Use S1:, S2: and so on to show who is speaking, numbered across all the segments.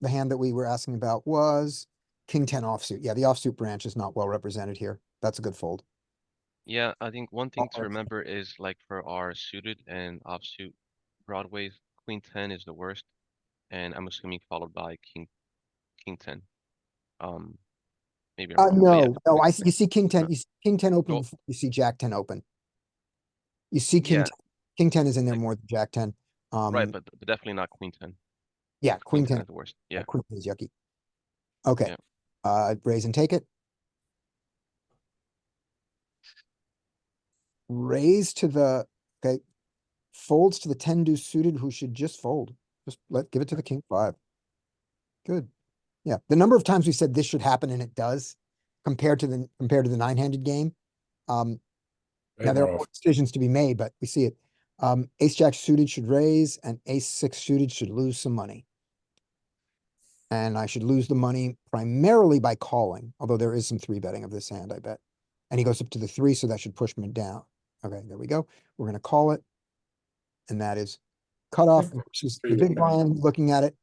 S1: the hand that we were asking about was king ten offsuit. Yeah, the offsuit branch is not well represented here. That's a good fold.
S2: Yeah, I think one thing to
S1: Uh-oh.
S2: remember is like for our suited and offsuit broadways, queen ten is the worst. And I'm assuming followed by king, king ten. Um, maybe. I'm
S1: Uh,
S2: wrong, but yeah,
S1: no, no,
S2: queen
S1: I, see- you see king ten,
S2: Uh,
S1: you see king ten open,
S2: well-
S1: before you see jack ten open. You see king,
S2: Yeah.
S1: t- king ten is in there
S2: Like-
S1: more than jack ten.
S2: ten. Right,
S1: Um,
S2: but but definitely not queen ten.
S1: yeah, queen ten,
S2: is The worst,
S1: yeah,
S2: yeah.
S1: queen ten is yucky. Okay,
S2: Yeah.
S1: uh, raise and take it. Raise to the, okay, folds to the ten deuce suited who should just fold. Just let, give it to the king five. Good. Yeah, the number of times we said this should happen and it does compared to the, compared to the nine-handed game. Um, Now, there are more decisions to be made, but we see it. Um, ace jack suited should raise and ace six suited should lose some money. And I should lose the money primarily by calling, although there is some three betting of this hand, I bet. And he goes up to the three, so that should push me down. Okay, there we go. We're gonna call it. And that is cutoff
S3: Okay.
S1: versus
S3: Hmm. Three
S1: the
S3: big
S1: big
S3: blind.
S1: blind looking at it,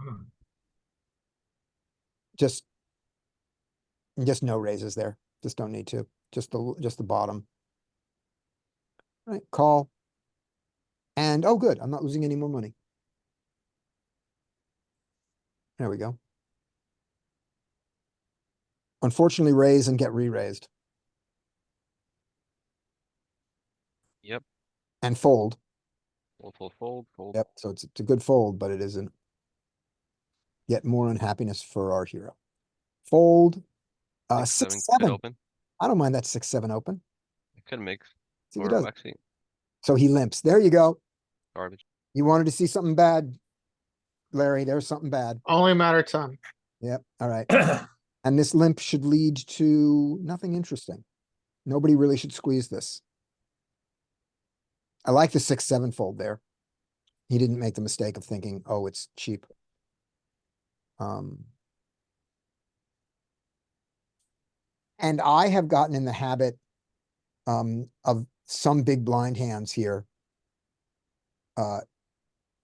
S3: Hmm.
S1: just just no raises there. Just don't need to. Just the just the bottom. Right, call. And oh, good, I'm not losing any more money. There we go. Unfortunately, raise and get re-raised
S2: Yep,
S1: and fold.
S2: fold, fold, fold, fold.
S1: Yep, so it's it's a good fold, but it isn't. Yet more unhappiness for our hero. Fold. Uh, six,
S2: could
S1: seven.
S2: Open,
S1: I don't mind that six, seven open.
S2: it could mix,
S1: See, he
S2: or
S1: does.
S2: actually
S1: So he limps. There you go.
S2: garbage.
S1: You wanted to see something bad, Larry. There's something bad.
S3: Only a matter of time.
S1: Yep. All right. And this limp should lead to nothing interesting. Nobody really should squeeze this. I like the six, seven fold there. He didn't make the mistake of thinking, oh, it's cheap. Um. And I have gotten in the habit um, of some big blind hands here. Uh,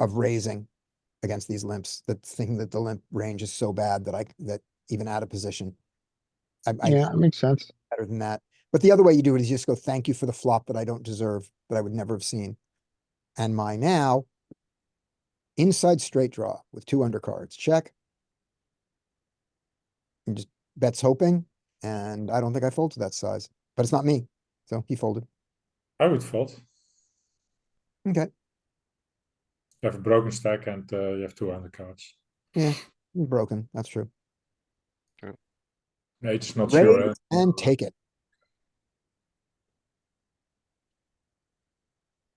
S1: of raising against these limps, the thing that the limp range is so bad that I, that even out of position. I, I
S3: Yeah, that makes sense.
S1: better than that. But the other way you do it is you just go, thank you for the flop that I don't deserve, that I would never have seen. And my now inside straight draw with two undercards, check. And just bets hoping, and I don't think I fold to that size, but it's not me. So he folded.
S4: I would fold.
S1: Okay,
S4: You have a broken stack and uh, you have two undercards.
S1: he's broken. That's true.
S4: No, it's not sure.
S1: Raise
S4: eh?
S1: and take it.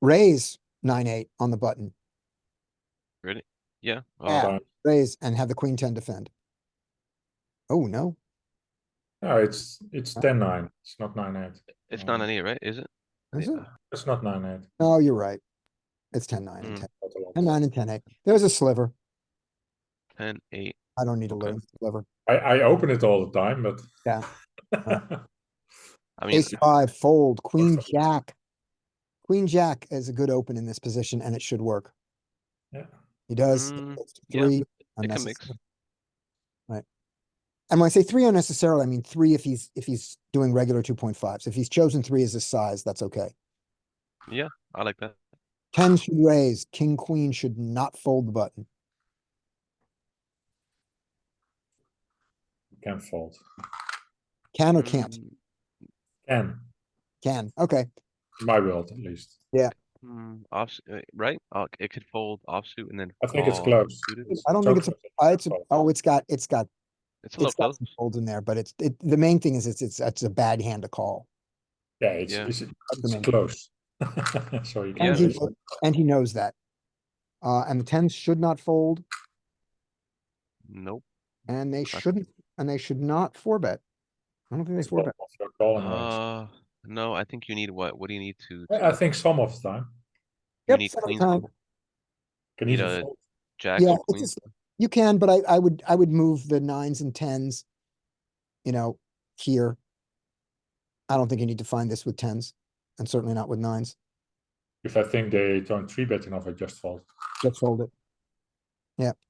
S1: Raise nine, eight on the button,
S2: Yeah, oh,
S1: Yeah.
S4: Fine.
S1: raise and have the queen ten defend. Oh, no.
S4: No, it's it's ten nine. It's not nine eight.
S2: it's not an eight, right? Is it? Uh,
S1: Is
S2: Yeah.
S1: it?
S4: It's not nine eight.
S1: No, you're right. It's ten, nine and
S2: Mm.
S1: ten,
S4: Not a lot.
S1: ten, nine and ten, eight. There's a sliver.
S2: Ten, eight.
S1: I don't need a
S2: Okay.
S1: little sliver.
S4: I I open it all the time, but
S1: Yeah.
S2: I mean,
S1: Ace five, fold, queen, jack. Queen, jack is a good open in this position and it should work.
S4: yeah.
S1: He does
S2: Mm, yeah,
S1: three.
S2: it can
S1: unnecessary.
S2: mix.
S1: And when I say three unnecessarily, I mean three if he's, if he's doing regular two point fives. If he's chosen three as his size, that's okay.
S2: I like that.
S1: Ten should raise, king, queen should not fold the button.
S4: you can fold.
S1: Can or can't?
S2: Mm,
S4: Can
S1: Can, okay.
S4: in my world at least.
S2: Mm, offs, uh, right? Uh, it could fold offsuit and then.
S4: I think it's
S2: call
S4: close.
S2: suited.
S1: I don't
S4: so
S1: think it's a-
S4: close.
S1: Uh, It's,
S4: fold.
S1: oh, it's got, it's got,
S2: It's a little
S1: it's got
S2: close.
S1: some folds in there, but it's, it, the main thing is it's, it's, it's a bad hand to call.
S4: Yeah, it's
S2: Yeah.
S4: it's,
S1: the
S4: it's
S1: main-
S4: close. so you
S2: Yeah.
S4: can.
S1: And he,
S4: raise
S1: kno- and he knows that. Uh, and the tens should not fold,
S2: Nope.
S1: and they
S2: Gotcha.
S1: shouldn't, and they should not four bet. I don't think they
S4: It's
S1: four
S4: all
S1: bet.
S4: off your calling range.
S2: Uh, no, I think you need what? What do you need to?
S4: I I think some of the time.
S2: You
S1: Yep,
S2: need
S1: some
S2: queen,
S1: time.
S4: Can
S2: You
S4: even
S2: know,
S4: fold.
S2: Jack
S1: Yeah,
S2: or
S1: it's
S2: queen.
S1: just- you can, but I, I would, I would move the nines and tens. You know, here. I don't think you need to find this with tens, and certainly not with nines.
S4: If I think they don't three bet enough, I just fold.
S1: Just fold it. Yeah,